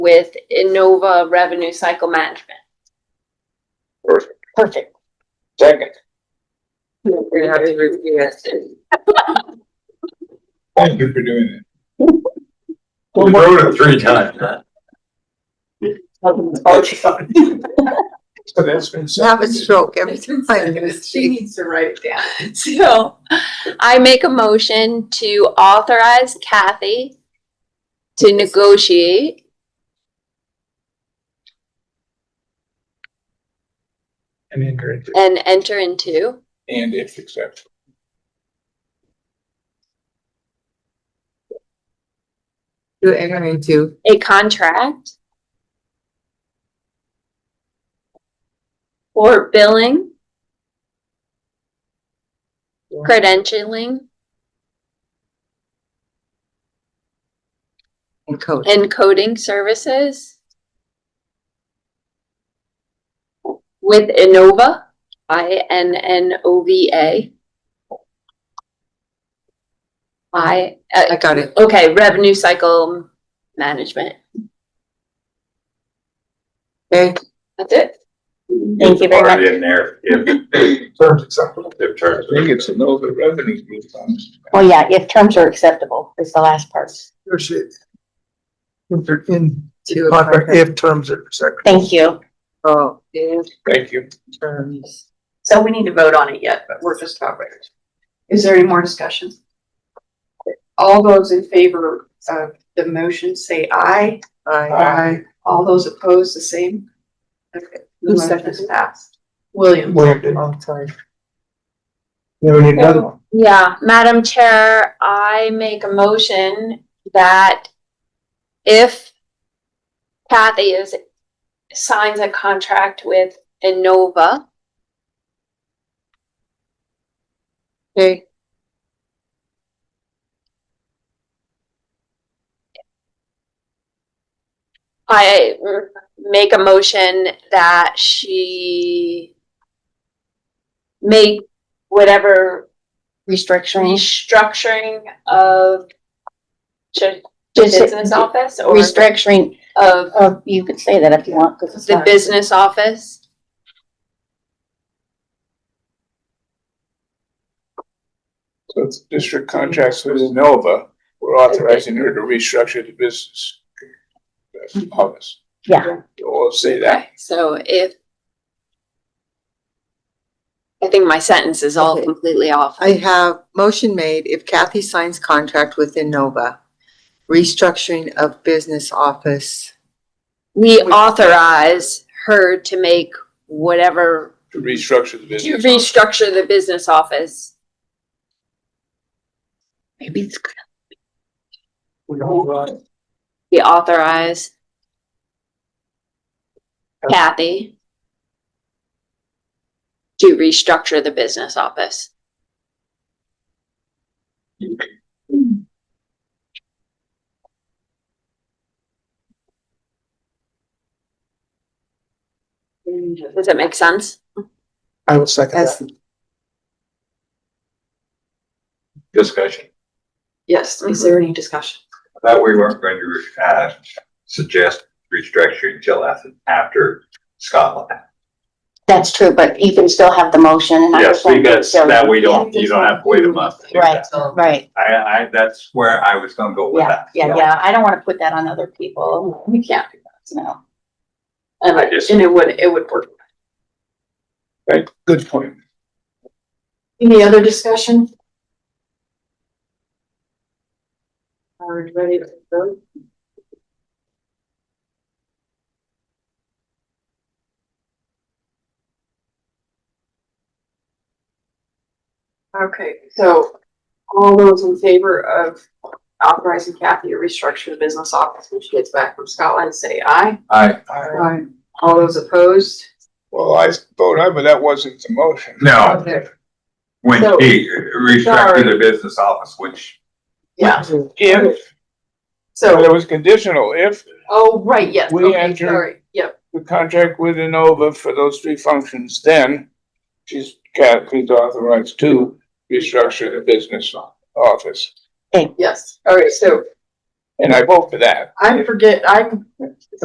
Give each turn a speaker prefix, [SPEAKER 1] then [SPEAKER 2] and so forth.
[SPEAKER 1] with Innova Revenue Cycle Management.
[SPEAKER 2] Perfect.
[SPEAKER 1] Perfect.
[SPEAKER 2] Second.
[SPEAKER 3] We have to review it.
[SPEAKER 2] Thank you for doing it. We wrote it three times. So that's been.
[SPEAKER 4] have a stroke every time.
[SPEAKER 3] She needs to write it down.
[SPEAKER 1] So I make a motion to authorize Kathy to negotiate
[SPEAKER 2] And encourage.
[SPEAKER 1] and enter into
[SPEAKER 2] And if accepted.
[SPEAKER 4] You enter into
[SPEAKER 1] a contract for billing, credentialing,
[SPEAKER 4] and code.
[SPEAKER 1] and coding services with Innova, I N N O V A. I,
[SPEAKER 4] I
[SPEAKER 1] uh,
[SPEAKER 4] got it.
[SPEAKER 1] okay, revenue cycle management.
[SPEAKER 4] Okay,
[SPEAKER 1] That's it.
[SPEAKER 5] Thank you very Or much. In there, if,
[SPEAKER 2] Terms acceptable.
[SPEAKER 5] if
[SPEAKER 2] I
[SPEAKER 5] terms.
[SPEAKER 2] think it's a no, the revenue's being done.
[SPEAKER 5] Well, yeah, if terms are acceptable, is the last part.
[SPEAKER 6] Appreciate it. If in,
[SPEAKER 4] to a
[SPEAKER 6] contract,
[SPEAKER 4] contract.
[SPEAKER 6] if terms are acceptable.
[SPEAKER 5] Thank you.
[SPEAKER 4] Oh, if
[SPEAKER 2] Thank you.
[SPEAKER 4] terms.
[SPEAKER 3] So we need to vote on it yet, but we're just covering it. Is there any more discussion? All those in favor of the motion, say aye.
[SPEAKER 6] I,
[SPEAKER 3] All those opposed, the same? Okay, the
[SPEAKER 4] Who
[SPEAKER 3] motion
[SPEAKER 4] seconded
[SPEAKER 3] is passed. William,
[SPEAKER 6] wait,
[SPEAKER 4] Long time.
[SPEAKER 6] no, we need another one.
[SPEAKER 1] Yeah, Madam Chair, I make a motion that if Kathy is, signs a contract with Innova,
[SPEAKER 4] Okay,
[SPEAKER 1] I mm, make a motion that she make whatever
[SPEAKER 5] Restructuring,
[SPEAKER 1] restructuring of the
[SPEAKER 5] Just-
[SPEAKER 1] business office or
[SPEAKER 5] restructuring,
[SPEAKER 1] of
[SPEAKER 7] Oh,
[SPEAKER 5] of you could say that if you want, because it's
[SPEAKER 1] the
[SPEAKER 5] not.
[SPEAKER 1] business office
[SPEAKER 2] So it's district contracts with Nova. We're authorizing her to restructure the business office.
[SPEAKER 5] Yeah.
[SPEAKER 2] We'll say that.
[SPEAKER 1] Okay, so if I think my sentence is all
[SPEAKER 4] Okay.
[SPEAKER 1] completely off.
[SPEAKER 4] I have motion made if Kathy signs contract with Innova, restructuring of business office.
[SPEAKER 1] We authorize her to make whatever,
[SPEAKER 2] To restructure
[SPEAKER 1] to
[SPEAKER 2] the business.
[SPEAKER 1] restructure the business office.
[SPEAKER 5] Maybe it's good.
[SPEAKER 1] We authorize Kathy to restructure the business office. Does that make sense?
[SPEAKER 6] I will second that.
[SPEAKER 4] That's,
[SPEAKER 5] Discussion.
[SPEAKER 3] yes, is there any discussion?
[SPEAKER 5] I thought we weren't going to, uh, suggest restructuring until after, after Scotland.
[SPEAKER 7] That's true, but you can still have the motion and I was
[SPEAKER 5] Yes,
[SPEAKER 7] wondering,
[SPEAKER 5] because
[SPEAKER 7] so-
[SPEAKER 5] that way you don't, you don't have to wait a month. to do
[SPEAKER 7] Right.
[SPEAKER 5] that.
[SPEAKER 7] Right,
[SPEAKER 5] I, I, that's where I was gonna go with
[SPEAKER 7] yeah,
[SPEAKER 5] that.
[SPEAKER 7] yeah, yeah. I don't want to put that on other people,
[SPEAKER 3] We can't do
[SPEAKER 7] no.
[SPEAKER 3] that.
[SPEAKER 5] I just-
[SPEAKER 3] And it would, it would work.
[SPEAKER 2] Right, good point.
[SPEAKER 3] Any other discussion? Are you ready to vote? Okay, so all those in favor of authorizing Kathy to restructure the business office when she gets back from Scotland, say aye.
[SPEAKER 5] I,
[SPEAKER 3] Aye. All those opposed?
[SPEAKER 2] Well, I vote aye, but that wasn't the motion.
[SPEAKER 5] no, when
[SPEAKER 3] So-
[SPEAKER 5] he restructured the business office, which
[SPEAKER 3] Yeah,
[SPEAKER 2] If, but
[SPEAKER 3] so,
[SPEAKER 2] it was conditional, if
[SPEAKER 3] oh, right, yes,
[SPEAKER 2] We
[SPEAKER 3] okay,
[SPEAKER 2] enter-
[SPEAKER 3] sorry, yep.
[SPEAKER 2] the contract with Inova for those three functions, then she's, Kathy's authorized to restructure the business office.
[SPEAKER 3] Yes, all right, so
[SPEAKER 2] And I vote for that.
[SPEAKER 3] I forget, I'm